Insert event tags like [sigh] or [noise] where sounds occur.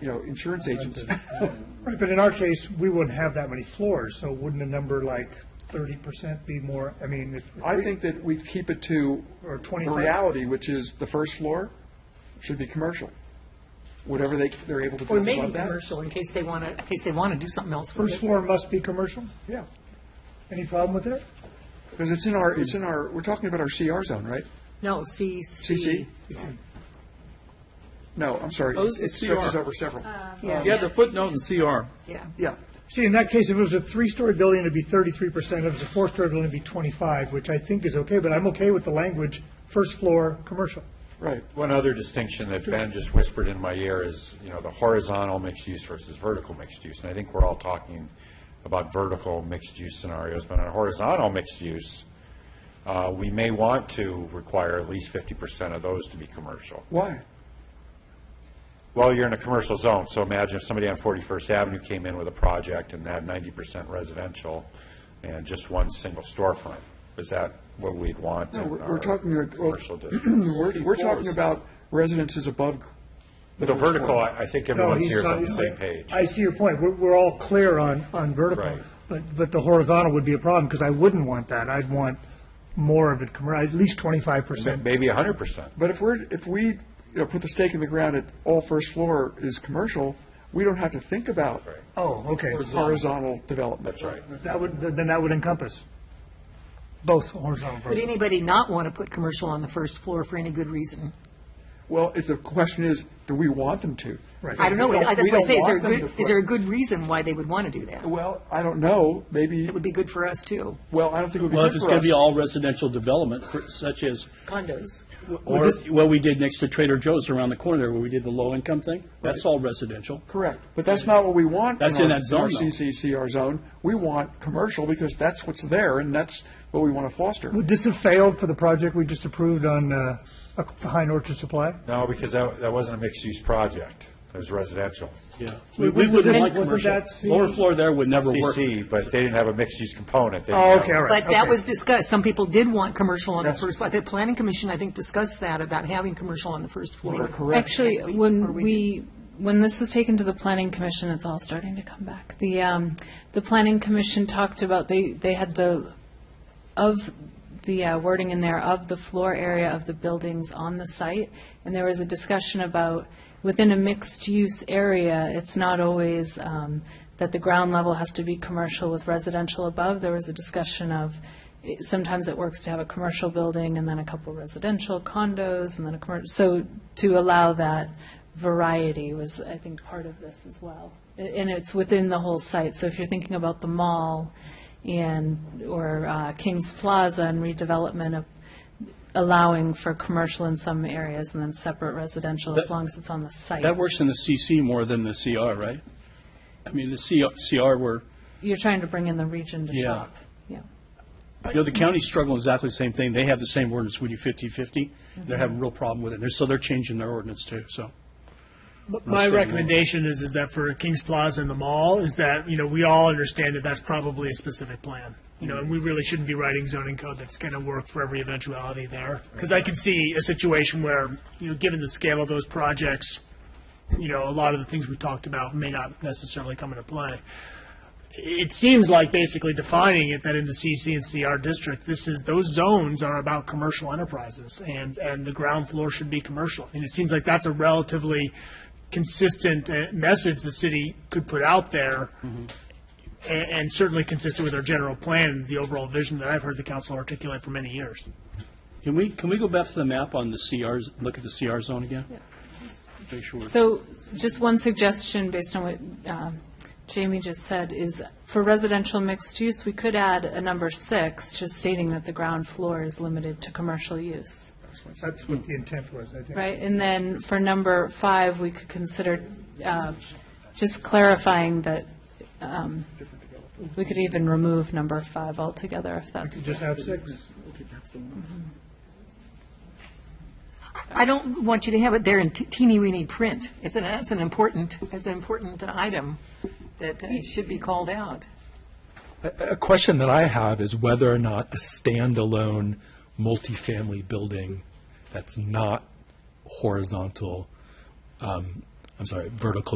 you know, insurance agents. Right, but in our case, we wouldn't have that many floors, so wouldn't a number like thirty percent be more, I mean, if. I think that we keep it to Or the 25. reality, which is the first floor should be commercial. Whatever they, they're able to do Or above that. maybe commercial, in case they want to, in case they want to do something else with First it. floor must be commercial? Yeah, Any problem with that? because it's in our, it's in our, we're talking about our CR zone, right? No, CC. CC? No, I'm sorry. Oh, this It- is It stretches CR. over several. Yeah, the footnote in CR. Yeah. Yeah, See, in that case, if it was a three-story building, it'd be thirty-three percent, if it's a four-story building, it'd be twenty-five, which I think is okay, but I'm okay with the language, first floor, commercial. right. One other distinction that Ben just whispered in my ear is, you know, the horizontal mixed use versus vertical mixed use. And I think we're all talking about vertical mixed use scenarios, but on horizontal mixed use, uh, we may want to require at least fifty percent of those to be commercial. Why? Well, you're in a commercial zone, so imagine if somebody on Forty-first Avenue came in with a project and had ninety percent residential and just one single storefront. Is that what we'd want No, in we're we're our talking, about- well, commercial districts? [clears throat] we're, we're talking about residences above. The vertical, I I think No, everyone's he's here is on talking- the same page. I see your point. We're, we're all clear on, on vertical. Right. But, but the horizontal would be a problem because I wouldn't want that. I'd want more of it, commer- at least twenty-five Ma- percent. Maybe hundred percent. But if we're, if we, you know, put the stake in the ground at all first floor is commercial, we don't have to think about Right. Oh, okay. horizontal development. That's right. That would, then that would encompass both horizontal and Would vertical. anybody not want to put commercial on the first floor for any good reason? Well, if the question is, do we want them to? Right. I don't know, We don't- that's we why I don't say, is there, a want them good to is put- there a good reason why they would want to do that? Well, I don't know, maybe, It would be good for us, too, well, I don't think it would be Well, if good it's for going to be us. all residential development, for- such as, condos. or what we did next to Trader Joe's around the corner there, where we did the low-income thing, that's all residential. Correct, but that's not what we want. That's in our- that zone, Our though. CCCR zone, we want commercial because that's what's there and that's what we want to foster. Would this have failed for the project we just approved on, uh, Oc- behind Orchard Supply? No, because that, that wasn't a mixed-use project. It was residential. Yeah. We we wouldn't Wasn't like that commercial. C? Lower floor there would never work. CC, but they didn't have a mixed-use component. They Oh, didn't okay, have- all right. But that okay. was discussed, some people did want commercial on the Yes. first floor. The planning commission, I think, discussed that, about having commercial on the first floor. Correct. Actually, And or when we, when this was taken to the planning commission, it's all starting to come back. The, um, the planning commission talked about, they, they had the, of the uh, wording in there, of the floor area of the buildings on the site, and there was a discussion about, within a mixed-use area, it's not always um, that the ground level has to be commercial with residential above. There was a discussion of, it- sometimes it works to have a commercial building and then a couple residential condos and then a commercial, so to allow that variety was, I think, part of this as well. A- And it's within the whole site, so if you're thinking about the mall and, or uh, Kings Plaza and redevelopment of allowing for commercial in some areas and then separate residential as That- long as it's on the site. That works in the CC more than the CR, right? I mean, the CR CR were, You're trying to bring in the region to Yeah. shop. Yeah. you know, the county's struggling exactly the same thing. They have the same ordinance, we do 50/50. They're having a real problem with it, They're- so they're changing their ordinance too, so. My recommendation is, is that for Kings Plaza and the mall, is that, you know, we all understand that that's probably a specific plan. You know, and we really shouldn't be writing zoning code that's going to work for every eventuality there. Because I could see a situation where, you know, given the scale of those projects, you know, a lot of the things we've talked about may not necessarily come into play. It seems like basically defining it that in the CC and CR district, this is, those zones are about commercial enterprises and, and the ground floor should be commercial. And it seems like that's a relatively consistent uh, message the city could put out there a- and certainly consistent with our general plan, the overall vision that I've heard the council articulate for many years. Can we, can we go back to the map on the CRs, look at the CR zone again? Make sure. we're- So just one suggestion based on what um, Jamie just said is for residential mixed use, we could add a number six, just stating that the ground floor is limited to commercial use, That's what the intent was, I think. right? And then for number five, we could consider uh, just clarifying that um, we could even remove number five altogether if that's. Just have six. I don't want you to have it there in te- teeny weeny print. It's an, that's an important, it's an important item that uh, should be called out. A question that I have is whether or not a standalone multifamily building that's not horizontal, um, I'm sorry, vertical